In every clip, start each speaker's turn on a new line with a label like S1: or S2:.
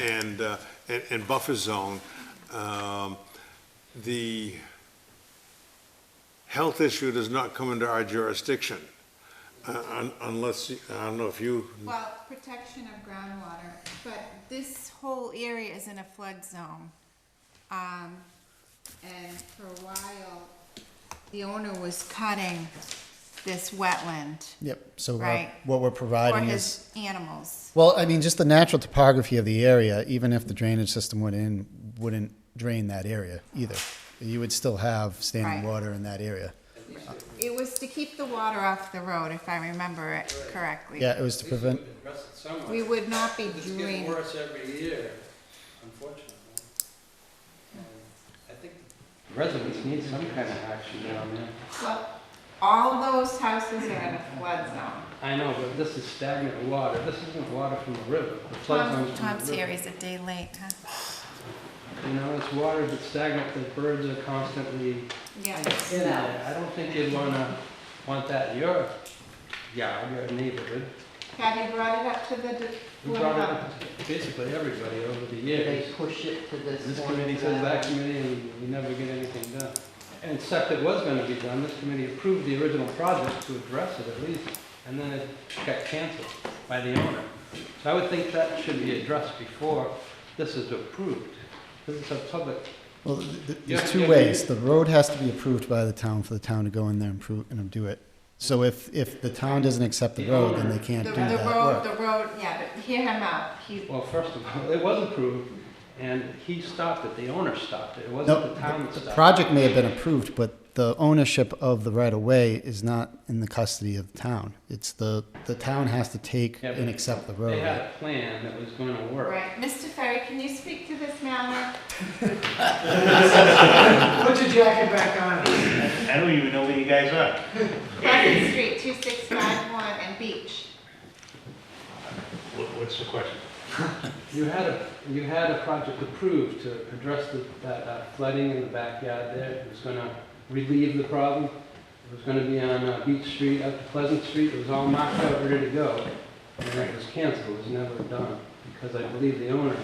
S1: and, uh, and- and buffer zone, um, the health issue does not come into our jurisdiction, uh, un- unless, I don't know if you,
S2: Well, protection of groundwater, but this whole area is in a flood zone. Um, and for a while, the owner was cutting this wetland
S3: Yep, so uh,
S2: Right.
S3: what we're
S2: for
S3: providing is,
S2: his animals.
S3: well, I mean, just the natural topography of the area, even if the drainage system went in, wouldn't drain that area either. You would still have
S2: Right.
S3: standing water in that area.
S2: It was to keep the water off the road, if I remember it correctly.
S3: Yeah, it was to
S4: At least we
S3: prevent,
S4: could address it somewhat.
S2: We would not be
S4: It's getting
S2: doing,
S4: worse every year, unfortunately. And I think residents need some kind of action down there.
S2: well, all those houses are in a flood zone.
S4: I know, but this is stagnant water. This isn't water from the river. The flood
S2: Tom,
S4: comes from
S2: Tom's
S4: the
S2: here,
S4: river.
S2: he's a day late, huh?
S4: You know, it's water that's stagnant, the birds are constantly in
S2: Yeah.
S4: there. I don't think you'd wanna, want that in your yard, your neighborhood.
S2: Patty brought it up to the, d-
S4: We brought it up to basically everybody over the years.
S5: They push it to this.
S4: This
S5: one,
S4: committee
S5: to
S4: says that
S5: one.
S4: committee, and we never get anything done. And except it was gonna be done, this committee approved the original project to address it at least, and then it got canceled by the owner. So I would think that should be addressed before this is approved. This is a public,
S3: well, th- th-
S4: Yeah,
S3: there's two
S4: yeah,
S3: ways.
S4: we-
S3: The road has to be approved by the town for the town to go in there and prove, and do it. So if, if the town doesn't accept the
S4: The
S3: road, then they
S4: owner.
S3: can't
S2: The,
S3: do
S2: the
S3: that
S2: road,
S3: work.
S2: the road, yeah, but hear him out, he,
S4: well, first of all, it was approved, and he stopped it, the owner stopped it. It
S3: No,
S4: wasn't the town that
S3: the
S4: stopped
S3: project may have been approved, but the ownership of the right-of-way is not in the custody of the town. It's the, the town has to take
S4: Yeah, but
S3: and accept the
S4: it. They
S3: road.
S4: had a plan that was gonna work.
S2: right, Mr. Ferry, can you speak to this matter?
S6: I don't even know where you guys are.
S2: Pleasant Street, two six five one, and Beach.
S6: What, what's the question?
S4: You had a, you had a project approved to address the, that uh, flooding in the backyard there. It was gonna relieve the problem. It was gonna be on uh, Beach Street up to Pleasant Street. It was all marked out, ready to go. And then it was canceled, it was never done, because I believe the owner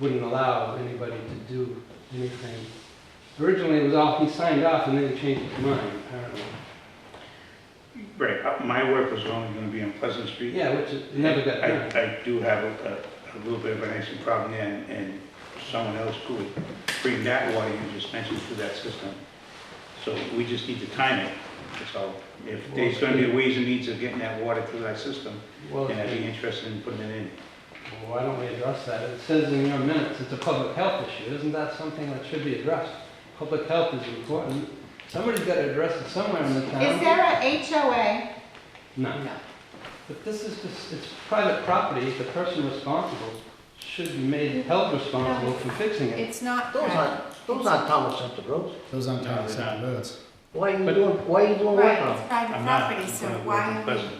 S4: wouldn't allow anybody to do anything. Originally, it was all, he signed off and then he changed his mind, apparently.
S6: Right, uh, my work was only gonna be on Pleasant Street.
S4: Yeah, which it never got done.
S6: I, I do have a, a a little bit of an icing problem there, and, and someone else could bring that water you just mentioned through that system. So we just need to time it, that's all. If there's gonna be ways and means of getting that water through that system,
S4: Well,
S6: and I'd be interested in putting it in.
S4: Well, Why don't we address that? It says in your minutes, it's a public health issue. Isn't that something that should be addressed? Public health is important. Somebody's got to address it somewhere in the town.
S2: Is there a HOA?
S4: No. But this is just, it's private property. The person responsible should be made held responsible for fixing it.
S2: It's not,
S5: Those aren't, those aren't Thomas Center roads.
S3: Those aren't town
S6: No, they're
S3: accepted roads.
S5: Why are you
S4: But-
S5: doing, why are you doing work
S2: right,
S5: on
S2: it's private
S6: I'm not-
S2: property, so
S6: I'm not
S2: why
S6: working
S2: are we?
S6: Pleasant.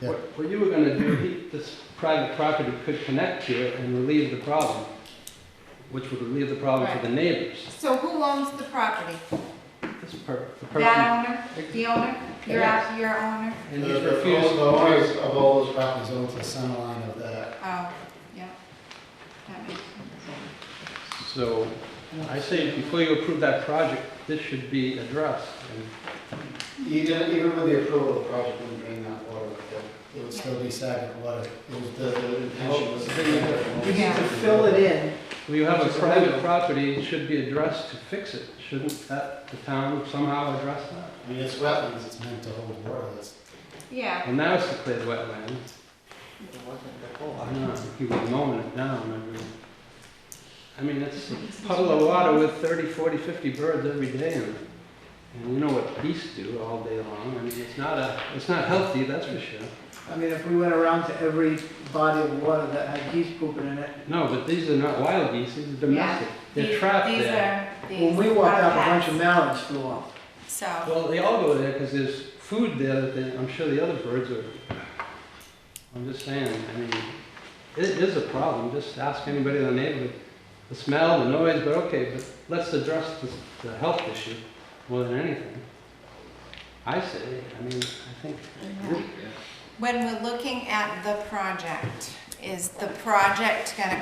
S3: Yeah.
S4: What what you were going to do, he- this private property could connect to it and relieve the problem, which would relieve the problem for the neighbors.
S2: So who owns the property?
S4: This per, the person.
S2: That owner, the owner, your,
S4: Yes.
S2: your owner?
S4: And he's refused.
S3: of all those properties, over to the center line of that.
S2: Oh, yeah. That makes sense.
S4: So I say, before you approve that project, this should be addressed. And
S3: Even, even with the approval of the project, wouldn't drain that water, it would still be stagnant water. It was, the, the intention was.
S5: You need to
S2: Yeah.
S5: fill it in.
S4: We have a private property, it should be addressed to fix it. Shouldn't that, the town somehow address that?
S3: I mean, it's wetlands, it's meant to hold water, that's.
S2: Yeah,
S4: Well, now it's declared wetland.
S5: It wasn't before.
S4: I know, he was mowing it down every, I mean, it's a puddle of water with 30, 40, 50 birds every day in it. And you know what geese do all day long. I mean, it's not a, it's not healthy, that's for sure.
S7: I mean, if we went around to every body of water that had geese pooping in it,
S4: No, but these are not wild geese, these are domestic. They're
S2: these, these
S4: trapped there.
S2: are, these.
S7: when we walked
S2: are
S7: out, a bunch of
S2: pets.
S7: mallards flew off.
S2: So,
S4: Well, they all go there because there's food there that they, I'm sure the other birds are. I'm just saying, I mean, it is a problem. Just ask anybody in the neighborhood. The smell, the noise, but okay, but let's address the, the health issue more than anything. I say, I mean, I think.
S2: when we're looking at the project, is the project gonna